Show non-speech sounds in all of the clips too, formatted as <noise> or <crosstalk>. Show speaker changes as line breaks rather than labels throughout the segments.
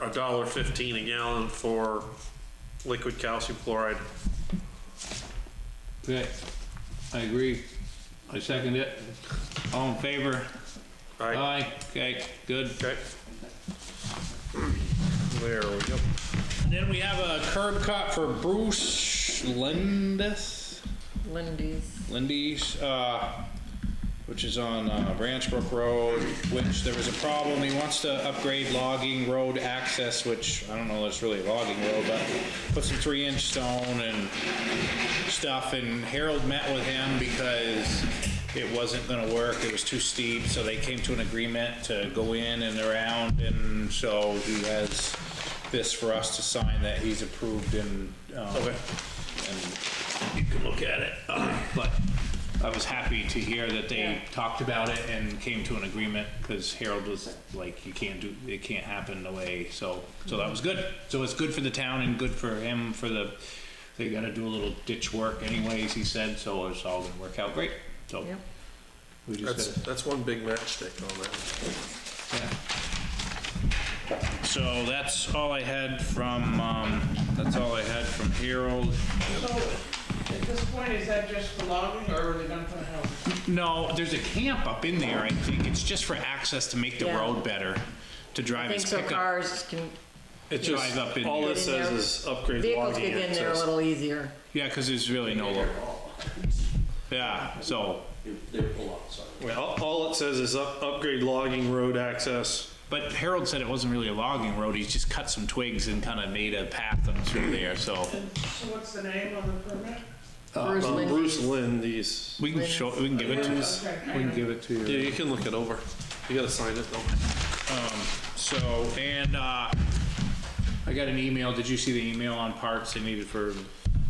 a dollar fifteen a gallon for liquid calcium chloride.
Okay, I agree. I second it. All in favor?
Right,
Aye, okay, good.
okay. There we go.
And then we have a curb cut for Bruce Lindis,
Lindy's.
Lindy's, uh, which is on uh, Branch Brook Road, which there was a problem. He wants to upgrade logging road access, which I don't know if it's really a logging road, but put some three inch stone and stuff, and Harold met with him because it wasn't gonna work, it was too steep, so they came to an agreement to go in and around, and so he has this for us to sign that he's approved and, um, and you can look at it, <clears throat> Uh, but I was happy to hear that they talked about it and came to an agreement, because Harold was like, you can't do, it can't happen the way, so, so that was good. So it's good for the town and good for him, for the, they gotta do a little ditch work anyways, he said, so it's all gonna work out great, so.
Yep.
We
That's,
just
that's one big matchstick on that.
gotta, yeah. So that's all I had from, um, that's all I had from Harold.
So, at this point, is that just for logging, or are they gonna put a house?
No, there's a camp up in there, I think, it's just for access to make the
Yeah.
road better, to
I
drive
think
his
so
pickup.
cars can,
It drive up in
All
there.
it says is upgrade
vehicles
logging
get in there a
access.
little easier.
Yeah, cause there's really no, lo- yeah, so,
All, all it says is up, upgrade logging road access.
but Harold said it wasn't really a logging road, he's just cut some twigs and kinda made a path up through there, so.
So what's the name of the permit?
Bruce
Um,
Lindy's.
Bruce Lynn, these,
We can show, we can give it to us.
Okay, hang on.
give it to
yeah, you can look it over. You gotta sign it though.
So, and, uh, I got an email, did you see the email on parts they needed for,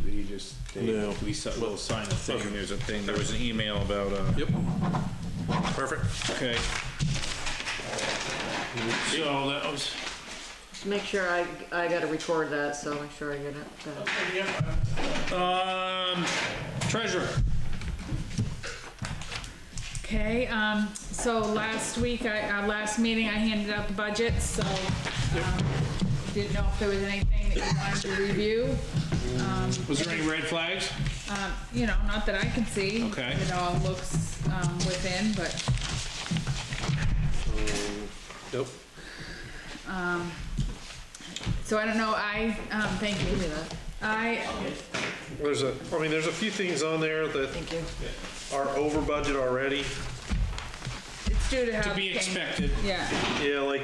he just, they,
No.
we si- we'll sign a thing, there's a thing, there was an email about, uh,
Yep. Perfect.
okay. So that was,
Make sure I, I gotta record that, so make sure I get it. uh, done.
Okay, yep, I'm-
um, treasurer.
Okay, um, so last week, I, our last meeting, I handed out the budget, so, um, didn't know if there was anything that you wanted to review.
Was there any red flags?
Um, you know, not that I can see.
Okay.
It all looks, um, within, but,
Yep.
so I don't know, I, um, thank
Give me
you.
that,
I,
There's a, I mean, there's a few things on there that
thank you.
are over budget already.
it's due to have.
To be expected.
Yeah,
Yeah, like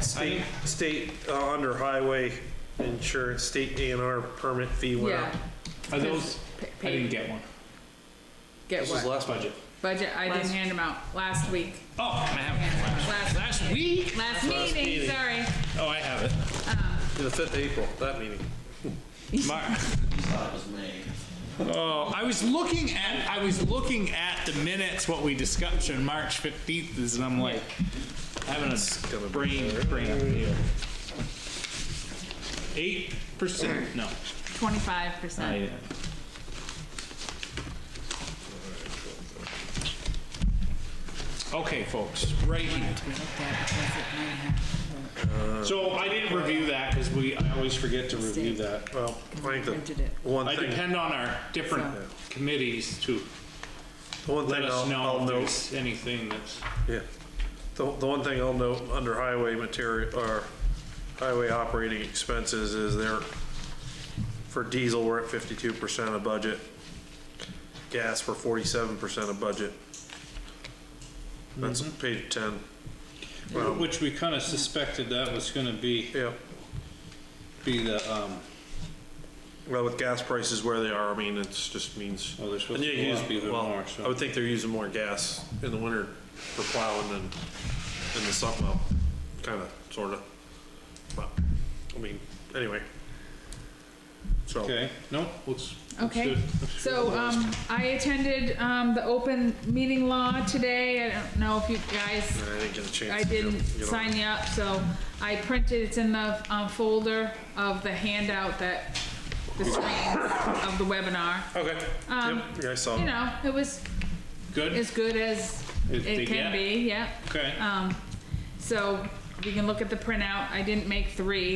state, state, uh, under highway insurance, state A and R permit fee went
yeah.
up.
Are those,
Pa-
I didn't
pa-
get one.
Get what?
last budget.
Budget, I didn't
Last-
hand them out, last week.
Oh, I have it.
Last-
Last week?
Last meeting,
meeting.
sorry.
Oh, I have it.
The fifth of April, that meeting.
Mark. Oh, I was looking at, I was looking at the minutes, what we discussed on March 15th, is, and I'm like, having a brain, brain. 8%, no.
Twenty-five
I,
percent.
uh, Okay, folks, right here.
Uh,
So I didn't review that because we, I always forget to review that.
Well, I think
Printed it.
the one
I
thing,
depend on our different
So-
committees to
the one
let
thing
us
I'll,
know
I'll
if
note,
there's anything that's,
yeah. The, the one thing I'll note under highway material, or highway operating expenses is there, for diesel, we're at fifty-two percent of budget. Gas, we're forty-seven percent of budget. That's page ten,
Mm-hmm. which we kind of suspected that was going to be,
yeah.
be the, um,
Well, with gas prices where they are, I mean, it's just means.
Oh, they're supposed
And yeah,
to
you
go
use-
up even
well,
more, so-
I would think they're using more gas in the winter for plowing than in the summer, well, kinda, sorta. But, I mean, anyway. So,
okay, no, looks, looks
Okay,
good.
so, um, I attended, um, the open meeting law today, I don't know if you guys,
I didn't get a chance.
I
to
didn't
get- get on.
sign you up, so I printed, it's in the, um, folder of the handout that, the screen of the webinar.
Okay,
Um,
yep, yeah, I
Oh.
saw.
You know, it was
Good,
as good as
As they
it
get.
can be, yeah.
okay.
Um, so you can look at the printout. I didn't make three.